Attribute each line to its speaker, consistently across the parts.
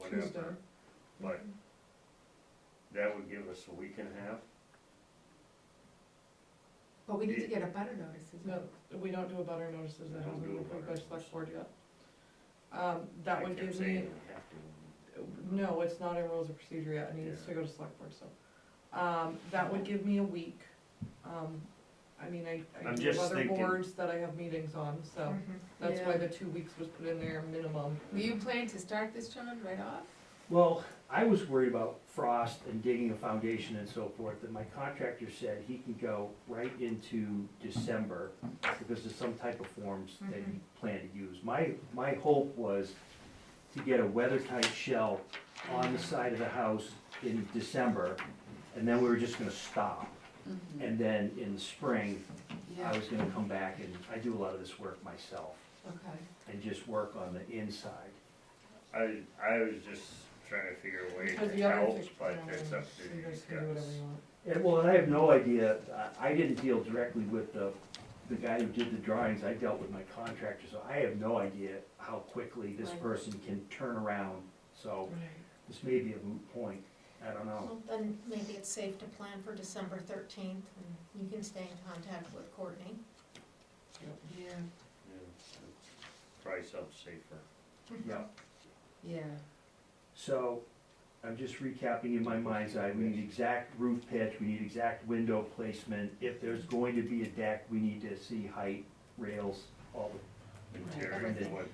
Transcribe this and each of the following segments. Speaker 1: Tuesday.
Speaker 2: September, but that would give us a week and a half.
Speaker 3: But we need to get a butter notice as
Speaker 1: No,
Speaker 3: well.
Speaker 1: we don't do a butter notices,
Speaker 2: We don't
Speaker 1: that hasn't
Speaker 2: do
Speaker 1: been
Speaker 2: a
Speaker 1: approved by
Speaker 2: butter
Speaker 1: select board yet. Um, that
Speaker 2: I
Speaker 1: would
Speaker 2: kept
Speaker 1: give
Speaker 2: saying
Speaker 1: me,
Speaker 2: we have to.
Speaker 1: no, it's not in rules of procedure yet, it needs to
Speaker 2: Yeah.
Speaker 1: go to select board, so. Um, that would give me a week, um, I mean, I, I
Speaker 2: I'm
Speaker 1: do
Speaker 2: just
Speaker 1: other
Speaker 2: thinking-
Speaker 1: boards that I have meetings on, so
Speaker 3: Mm.
Speaker 1: that's why
Speaker 3: Mm-hmm.
Speaker 1: the
Speaker 3: Yeah.
Speaker 1: two weeks was put in there minimum.
Speaker 3: Were you planning to start this, John, right off?
Speaker 4: Well, I was worried about frost and digging a foundation and so forth, and my contractor said he can go right into December because there's some type of forms that
Speaker 2: Mm-hmm.
Speaker 4: he planned to use. My, my hope was to get a weather-tight shell on the side of the house in December, and then we were just gonna stop.
Speaker 3: Mm-hmm.
Speaker 4: And then in the spring, I was gonna come back and, I do a lot of this work myself,
Speaker 3: Okay.
Speaker 4: and just work on the inside.
Speaker 2: I, I was just trying to figure a way
Speaker 1: Because
Speaker 2: to
Speaker 1: the other
Speaker 2: help,
Speaker 1: things-
Speaker 2: but
Speaker 1: no,
Speaker 2: it's up to
Speaker 1: You
Speaker 2: you
Speaker 1: guys can do whatever
Speaker 2: guys.
Speaker 1: you want.
Speaker 4: And well, and I have no idea, I, I didn't deal directly with the, the guy who did the drawings, I dealt with my contractor, so I have no idea how quickly this
Speaker 3: Right.
Speaker 4: person can turn around, so this may be a moot point, I don't know.
Speaker 5: Well, then maybe it's safe to plan for December thirteenth, and you can stay in contact with Courtney.
Speaker 3: Yeah,
Speaker 2: Yeah, Probably something safer.
Speaker 4: Yeah,
Speaker 3: yeah.
Speaker 4: so, I'm just recapping in my mind's eye, we need exact roof pitch, we need exact window placement, if there's going to be a deck, we need to see height, rails, all the,
Speaker 2: Interior,
Speaker 5: everything.
Speaker 2: what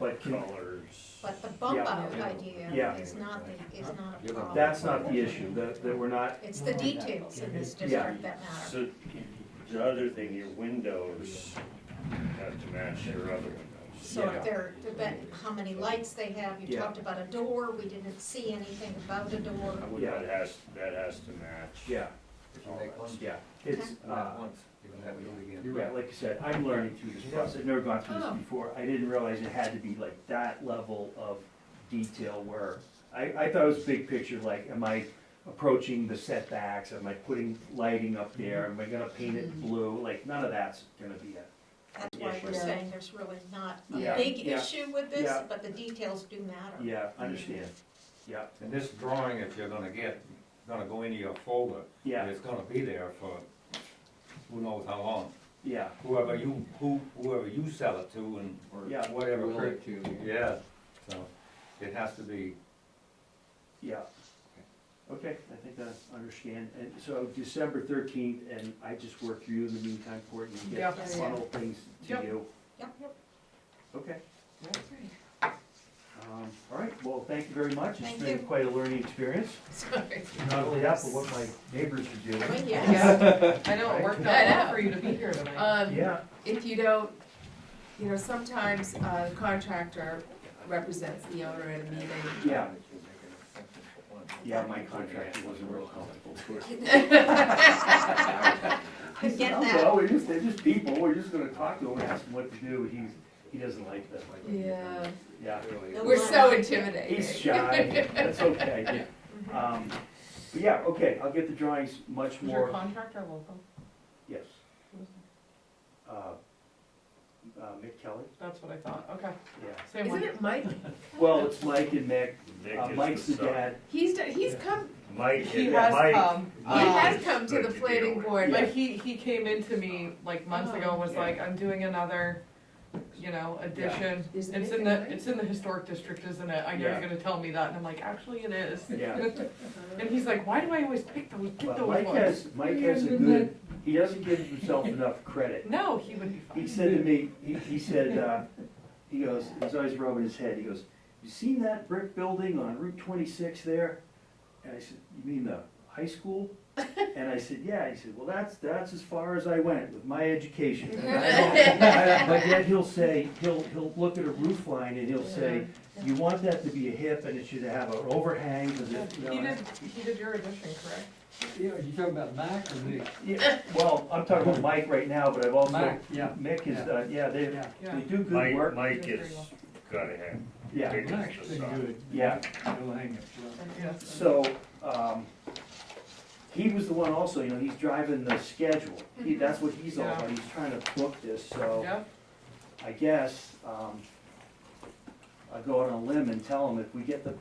Speaker 4: but can,
Speaker 2: colors.
Speaker 5: But the bump
Speaker 4: Yeah.
Speaker 5: out
Speaker 3: Yeah.
Speaker 5: idea
Speaker 4: Yeah.
Speaker 5: is not the, is not a
Speaker 6: You're
Speaker 5: problem.
Speaker 6: not-
Speaker 4: that's not the issue, that, that we're not
Speaker 5: It's the details in this district that matter.
Speaker 2: So, the other thing, your windows have to match your other windows.
Speaker 5: So
Speaker 4: Yeah.
Speaker 5: if they're, about how many lights they have, you
Speaker 4: Yeah.
Speaker 5: talked about a door, we didn't see anything about a door.
Speaker 2: That has, that has to match.
Speaker 4: Yeah,
Speaker 6: If you make one,
Speaker 4: yeah, it's,
Speaker 6: you
Speaker 4: uh,
Speaker 6: have once, you can have it all again.
Speaker 4: you're right, like you said, I'm learning through this process, I've never gone through this
Speaker 3: Oh.
Speaker 4: before, I didn't realize it had to be like that level of detail where, I, I thought it was big picture, like, am I approaching the setbacks, am I putting lighting up there, am I gonna paint it blue, like, none of that's gonna be it.
Speaker 5: That's why we're
Speaker 3: Yeah.
Speaker 5: saying there's really not a
Speaker 4: Yeah.
Speaker 5: big
Speaker 4: Yeah.
Speaker 5: issue with this,
Speaker 4: Yeah.
Speaker 5: but the details do matter.
Speaker 4: Yeah, I understand, yeah,
Speaker 6: And this drawing, if you're gonna get, gonna go into your folder, and
Speaker 4: yeah,
Speaker 6: it's gonna be there for who knows how long.
Speaker 4: yeah,
Speaker 6: Whoever you, who, whoever you sell it to and, or
Speaker 4: Yeah.
Speaker 6: whatever.
Speaker 7: Will
Speaker 6: per-
Speaker 7: it to-
Speaker 6: Yeah, so, it has to be,
Speaker 4: yeah. Okay, I think I understand, and so December thirteenth, and I just work through you in the meantime, Courtney, and
Speaker 1: Yeah.
Speaker 4: get
Speaker 1: Yeah, yeah.
Speaker 4: funnel things to
Speaker 1: Yep.
Speaker 4: you.
Speaker 5: Yep.
Speaker 4: Okay. Um, All right, well, thank you very much.
Speaker 5: Thank
Speaker 4: It's been
Speaker 5: you.
Speaker 4: quite a learning experience.
Speaker 3: Sorry.
Speaker 4: Not only that, but what my neighbors are
Speaker 5: I
Speaker 4: doing.
Speaker 5: mean, yes.
Speaker 1: Yeah, I know, it worked
Speaker 3: I
Speaker 1: out well
Speaker 3: know.
Speaker 1: for you to be here tonight.
Speaker 3: Um,
Speaker 4: Yeah,
Speaker 3: if you don't, you know, sometimes a contractor represents the owner at a meeting.
Speaker 4: yeah, yeah,
Speaker 6: yeah,
Speaker 4: my contractor wasn't real helpful.
Speaker 5: I get
Speaker 4: Oh,
Speaker 5: that.
Speaker 4: Well, we're just, they're just people, we're just gonna talk to them, ask them what to do, he's, he doesn't like that.
Speaker 3: Yeah,
Speaker 4: Yeah,
Speaker 6: really.
Speaker 3: we're so
Speaker 4: he's
Speaker 3: intimidating.
Speaker 4: shy, that's okay.
Speaker 5: Mm-hmm.
Speaker 4: Um, But yeah, okay, I'll get the drawings much
Speaker 1: Was your
Speaker 4: more,
Speaker 1: contractor local?
Speaker 4: yes. Uh, uh, Mick Kelly,
Speaker 1: That's what I thought, okay,
Speaker 4: yeah.
Speaker 1: same one.
Speaker 3: Isn't it Mike?
Speaker 4: Well, it's Mike and Mick,
Speaker 2: Nick
Speaker 4: Uh,
Speaker 2: is
Speaker 4: Mike's the
Speaker 2: son.
Speaker 4: dad,
Speaker 3: He's, done- he's come,
Speaker 2: Mike,
Speaker 1: He
Speaker 2: is-
Speaker 1: has
Speaker 2: Mike.
Speaker 1: come,
Speaker 3: he has
Speaker 2: it's
Speaker 3: come to
Speaker 2: good
Speaker 3: the
Speaker 2: to deal
Speaker 3: planning
Speaker 2: with.
Speaker 3: board.
Speaker 1: but he, he came into me like months ago, and was
Speaker 4: Oh, Yeah.
Speaker 1: like, I'm doing another, you know, addition. It's
Speaker 3: Isn't it
Speaker 1: in the,
Speaker 3: right?
Speaker 1: it's in the historic district, isn't it? I know
Speaker 4: Yeah.
Speaker 1: you're gonna tell me that, and I'm like, actually it is.
Speaker 4: yeah.
Speaker 1: And he's like, why do I always pick those, pick
Speaker 4: Well,
Speaker 1: those
Speaker 4: Mike
Speaker 1: ones?
Speaker 4: has, Mike has a good, he doesn't give himself enough credit.
Speaker 1: No, he would be
Speaker 4: He
Speaker 1: fine.
Speaker 4: said to me, he, he said, uh, he goes, he's always rubbing his head, he goes, you seen that brick building on Route twenty-six there? And I said, you mean the high school? And I said, yeah, he said, well, that's, that's as far as I went with my education. And I don't- I- But yet he'll say, he'll, he'll look at a roof line and he'll say, you want that to be a hip and it should have an overhang, because it, you know.
Speaker 1: He did, he did your addition, correct?
Speaker 7: Yeah, you talking about Mac or Nick?
Speaker 4: Yeah, well, I'm talking about Mike right now, but I've also,
Speaker 7: Mike, yeah.
Speaker 4: Mick is, uh, yeah, they,
Speaker 7: Yeah.
Speaker 4: they
Speaker 1: Yeah.
Speaker 4: do good
Speaker 2: Mike,
Speaker 4: work,
Speaker 2: Mike is gotta have.
Speaker 4: yeah,
Speaker 2: big
Speaker 7: Mac's
Speaker 2: as the
Speaker 7: been
Speaker 2: sun.
Speaker 7: good.
Speaker 4: yeah.
Speaker 7: He'll hang it, well.
Speaker 1: Yes.
Speaker 4: So, um, he was the one also, you know, he's driving the schedule, he, that's what he's all about, he's trying to book this, so
Speaker 1: Yep,
Speaker 4: I guess, um, I go out on a limb and tell him if we get the,